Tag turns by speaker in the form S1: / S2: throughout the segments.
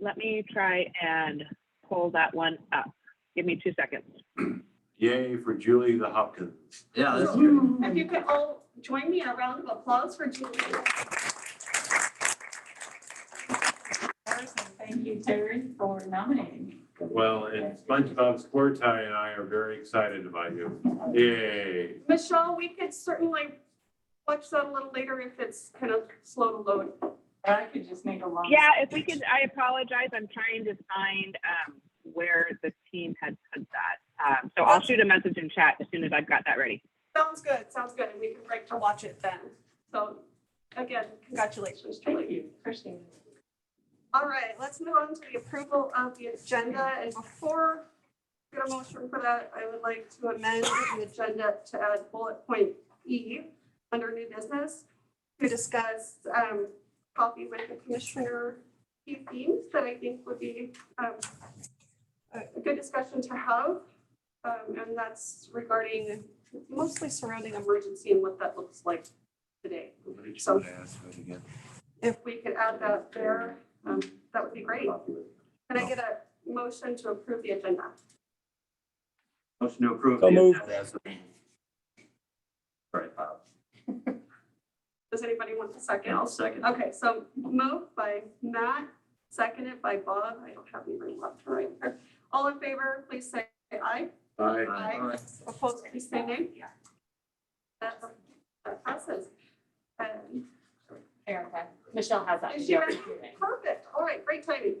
S1: Let me try and pull that one up. Give me two seconds.
S2: Yay for Julie the Hopkins.
S3: Yeah, that's good.
S4: If you could all join me in a round of applause for Julie. Thank you, Terry, for nominating.
S2: Well, and SpongeBob SquareTie and I are very excited about you. Yay.
S4: Michelle, we could certainly watch that a little later if it's kind of slow to load.
S5: I could just make a long.
S1: Yeah, if we could, I apologize. I'm trying to find um, where the team had put that. Um, so I'll shoot a message in chat as soon as I've got that ready.
S4: Sounds good, sounds good, and we can break to watch it then. So again, congratulations,
S5: Thank
S4: Julie.
S5: you, appreciate it.
S4: All right, let's move on to the approval of the agenda, and before we get a motion for that, I would like to amend the agenda to add bullet point E under new business to discuss, um, coffee with the commissioner, key themes that I think would be, um, a a good discussion to have. Um, and that's regarding mostly surrounding emergency and what that looks like today. So if we could add that there, um, that would be great. Can I get a motion to approve the agenda?
S3: Motion to approve.
S6: So
S3: the
S6: moved.
S3: agenda as written. Sorry, Bob.
S4: Does anybody want a
S3: And
S4: second?
S3: I'll second.
S4: Okay, so moved by Matt, seconded by Bob. I don't have any room left to write. All in favor, please say aye.
S2: Bye.
S4: Aye. Opposed, please say nay. That that passes. Um,
S5: Erica, Michelle has that.
S4: Is she ready? Perfect. All right, great timing.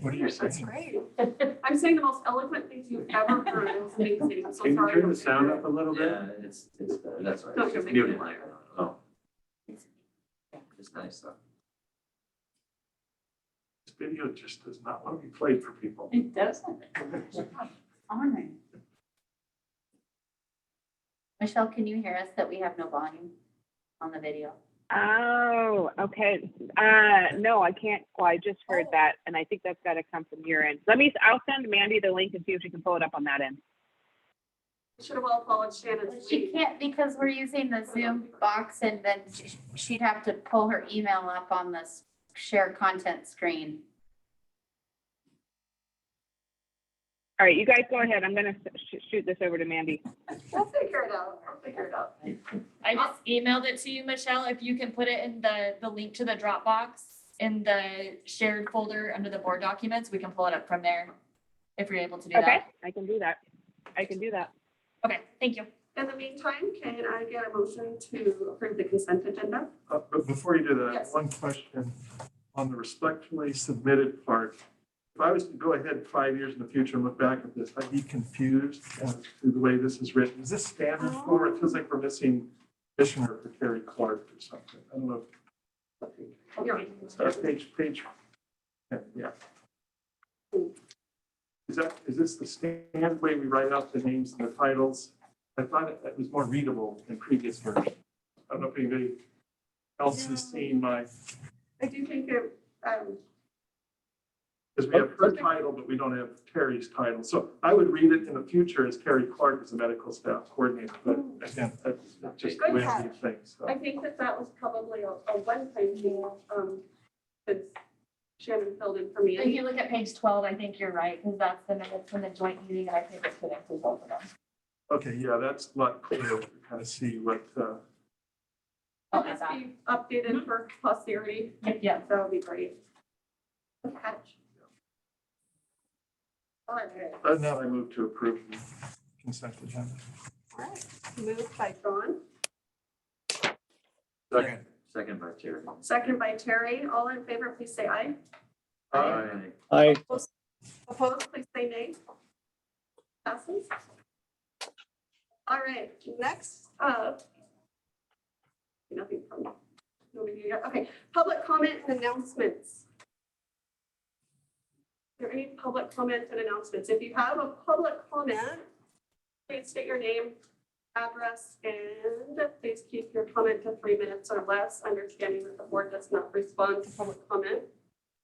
S6: What are you saying?
S4: I'm saying the most eloquent things you've ever heard. It's amazing. I'm so
S2: Can you
S4: sorry.
S2: turn the sound up a little bit?
S3: Yeah, it's, it's, better. that's all right.
S4: Not gonna
S3: It's
S4: make it
S3: muted.
S4: louder.
S3: Oh. It's nice though.
S2: This video just does not want to be played for people.
S5: It doesn't. On it.
S7: Michelle, can you hear us that we have no volume on the video?
S1: Oh, okay. Uh, no, I can't. Well, I just heard that, and I think that's got to come from your end. Let me. I'll send Mandy the link and see if she can pull it up on that end.
S4: Should have all followed Shannon's
S7: She
S4: lead.
S7: can't because we're using the Zoom box and then she- she'd have to pull her email up on this share content screen.
S1: All right, you guys go ahead. I'm gonna sh- shoot this over to Mandy.
S4: We'll figure it out. I'll figure it out.
S8: I just emailed it to you, Michelle, if you can put it in the, the link to the Dropbox in the shared folder under the board documents, we can pull it up from there. If you're able to do
S1: Okay,
S8: that.
S1: I can do that. I can do that.
S8: Okay, thank you.
S4: In the meantime, can I get a motion to approve the consent agenda?
S9: Uh, But before you do that,
S4: Yes.
S9: one question on the respectfully submitted part. If I was to go ahead five years in the future and look back at this, I'd be confused as to the way this is written. Is this standard form? It feels like we're missing Commissioner for Terry Clark or something. I don't know.
S4: You're-
S9: Uh, Page, page, yeah, yeah. Is that, is this the standard way we write out the names and the titles? I thought it it was more readable than previous version. I don't know if anybody else has seen my
S4: I do think it, um,
S9: Because we have her title, but we don't have Terry's title. So I would read it in the future as Terry Clark is the medical staff coordinator, but again, that's just the way I do things. so.
S4: I think that that was probably a, a one-time thing, um, since Shannon filled in for
S8: If
S4: me.
S8: you look at page twelve, I think you're right, because that's the minutes from the joint meeting, and I think it's connected both of them.
S9: Okay, yeah, that's a lot clearer to kind of see what, uh,
S4: It'll just be updated for posterity.
S8: Yeah.
S4: That would be great. Good catch. All right.
S9: uh, now I move to approve the consent agenda.
S4: All right. Moved by John,
S3: Second, second by Terry.
S4: second by Terry. All in favor, please say aye.
S3: Aye.
S6: Aye.
S4: Opposed, please say nay. Passes. All right, next up. Nothing from, nobody here. Okay, public comment and announcements. Are there any public comments and announcements? If you have a public comment, please state your name, address, and please keep your comment to three minutes or less, understanding that the board does not respond to public comment.